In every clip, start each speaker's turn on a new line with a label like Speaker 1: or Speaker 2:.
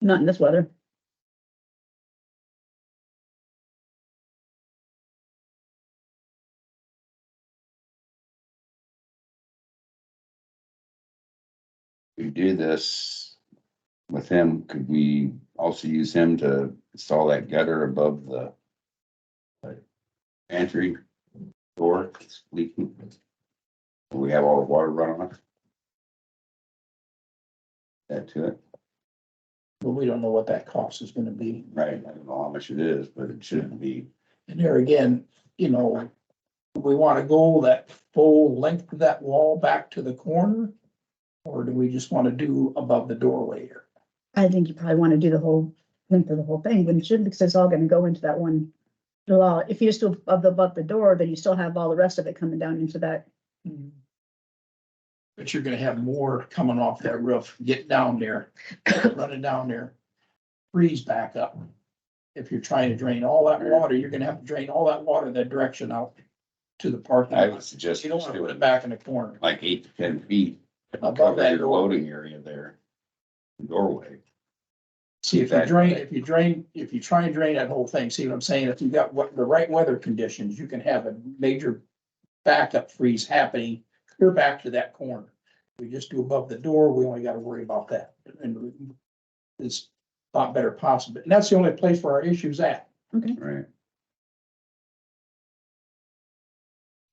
Speaker 1: not in this weather.
Speaker 2: we do this with him, could we also use him to install that gutter above the uh, pantry door that's leaking? We have all the water running off? That to it,
Speaker 3: But we don't know what that cost is gonna be.
Speaker 2: right? I don't know how much it is, but it shouldn't be.
Speaker 3: And there again, you know, we wanna go that full length of that wall back to the corner? Or do we just wanna do above the doorway here?
Speaker 1: I think you probably want to do the whole, length of the whole thing, wouldn't you? Because it's all gonna go into that one. Well, if you just do above the, above the door, then you still have all the rest of it coming down into that.
Speaker 3: But you're gonna have more coming off that roof, get down there, run it down there, freeze back up. If you're trying to drain all that water, you're gonna have to drain all that water that direction out to the parking
Speaker 2: I would
Speaker 3: lot.
Speaker 2: suggest
Speaker 3: You don't
Speaker 2: just
Speaker 3: wanna put it
Speaker 2: doing
Speaker 3: back in the corner.
Speaker 2: like eight to ten feet
Speaker 3: Above
Speaker 2: cover
Speaker 3: that
Speaker 2: your
Speaker 3: door.
Speaker 2: loading area there. Doorway,
Speaker 3: See, if you drain, if you drain, if you try and drain that whole thing, see what I'm saying? If you got what, the right weather conditions, you can have a major backup freeze happening clear back to that corner. We just do above the door, we only gotta worry about that. And it's a lot better possible. And that's the only place where our issue's at.
Speaker 2: right?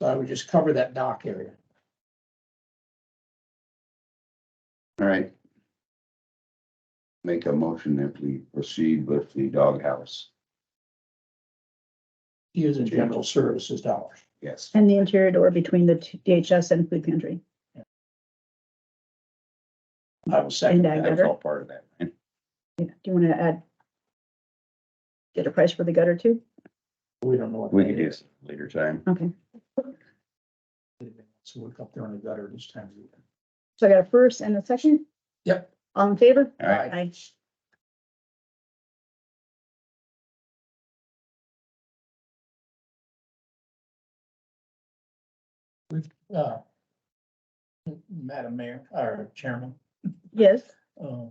Speaker 3: So I would just cover that dock area.
Speaker 2: All right. Make a motion if we proceed with the doghouse.
Speaker 3: Using general services dollars.
Speaker 2: Yes.
Speaker 1: And the interior door between the two- DHS and food pantry.
Speaker 3: I will
Speaker 1: And
Speaker 3: second that.
Speaker 1: I-
Speaker 2: That's all part of that. right?
Speaker 1: Yeah. Do you want to add? Get a price for the gutter too?
Speaker 3: We don't know what.
Speaker 2: We
Speaker 3: that
Speaker 2: can do
Speaker 3: is.
Speaker 2: this later time.
Speaker 1: Okay,
Speaker 3: So we're up there in the gutter this time. of year.
Speaker 1: so I got a first and a second?
Speaker 3: Yep.
Speaker 1: All in favor?
Speaker 2: All right,
Speaker 1: Aye.
Speaker 3: uh, Madam Mayor, or Chairman,
Speaker 1: Yes,
Speaker 3: uh,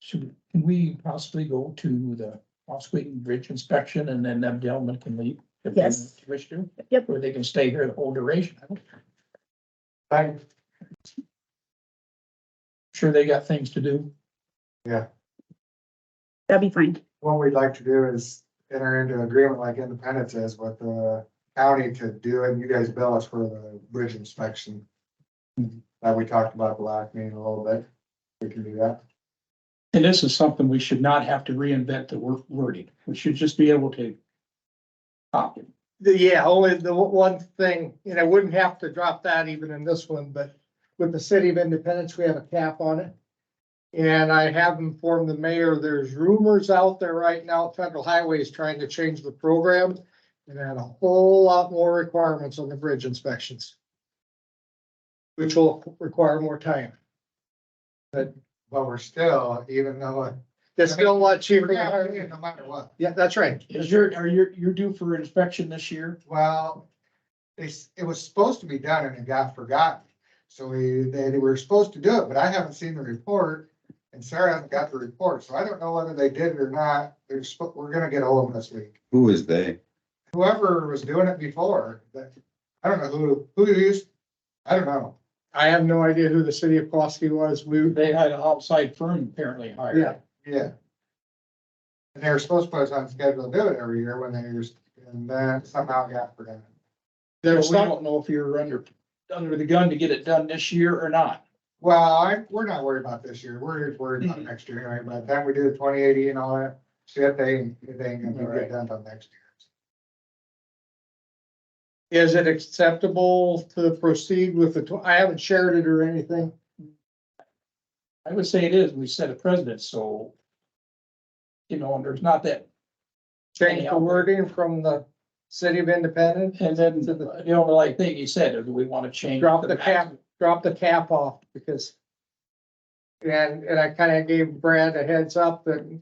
Speaker 3: should, can we possibly go to the Oswego Bridge inspection and then them gentlemen can leave? if they
Speaker 1: Yes.
Speaker 3: Wish to?
Speaker 1: Yep.
Speaker 3: Or they can stay here the whole duration.
Speaker 4: Fine,
Speaker 3: Sure, they got things to do.
Speaker 1: that'd be fine.
Speaker 4: what we'd like to do is enter into agreement like Independence is with the county to do it, and you guys bill us for the bridge inspection. That we talked about at the last meeting a little bit, we can do that.
Speaker 3: And this is something we should not have to reinvent the wor- wording. We should just be able to copy.
Speaker 5: The, yeah, only the o- one thing, and I wouldn't have to drop that even in this one, but with the city of Independence, we have a cap on it. And I have informed the mayor, there's rumors out there right now, federal highways trying to change the program and add a whole lot more requirements on the bridge inspections. Which will require more time.
Speaker 4: But we're still, even though.
Speaker 5: It's still a lot
Speaker 4: it-
Speaker 5: cheaper. than hiring.
Speaker 4: No matter what,
Speaker 5: Yeah, that's right.
Speaker 3: Is your, are you, you're due for inspection this year?
Speaker 4: well, it's, it was supposed to be done and it got forgotten. So we, they, they were supposed to do it, but I haven't seen the report, and Sarah hasn't got the report, so I don't know whether they did it or not, they're, sp- we're gonna get hold of them this week.
Speaker 2: Who is they?
Speaker 4: whoever was doing it before, that, I don't know who, who used, I don't know.
Speaker 5: I have no idea who the city of Pulaski was. We,
Speaker 3: They had an outside firm apparently hired.
Speaker 5: Yeah.
Speaker 4: Yeah. And they were supposed to put us on schedule to do it every year when they were, and then somehow it got forgotten.
Speaker 5: there's
Speaker 3: So we
Speaker 5: some,
Speaker 3: don't know if you're under, under the gun to get it done this year or not.
Speaker 4: Well, I, we're not worried about this year. We're just worried about next year anyway. By the time we do the twenty eighty and all that, shit, they, they ain't gonna get it done till next year.
Speaker 5: is it acceptable to proceed with the, tw- I haven't shared it or anything.
Speaker 3: I would say it is, we set a precedent, so. You know, and there's not that,
Speaker 5: Change the wording from the city of Independence,
Speaker 3: and then the the only like thing he said, is we want to change.
Speaker 5: Drop the cap. drop the cap off because. And, and I kind of gave Brad a heads up that.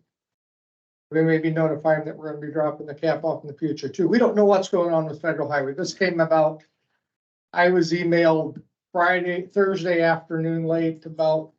Speaker 5: We may be notifying that we're gonna be dropping the cap off in the future too. We don't know what's going on with federal highway. This came about. I was emailed Friday, Thursday afternoon late about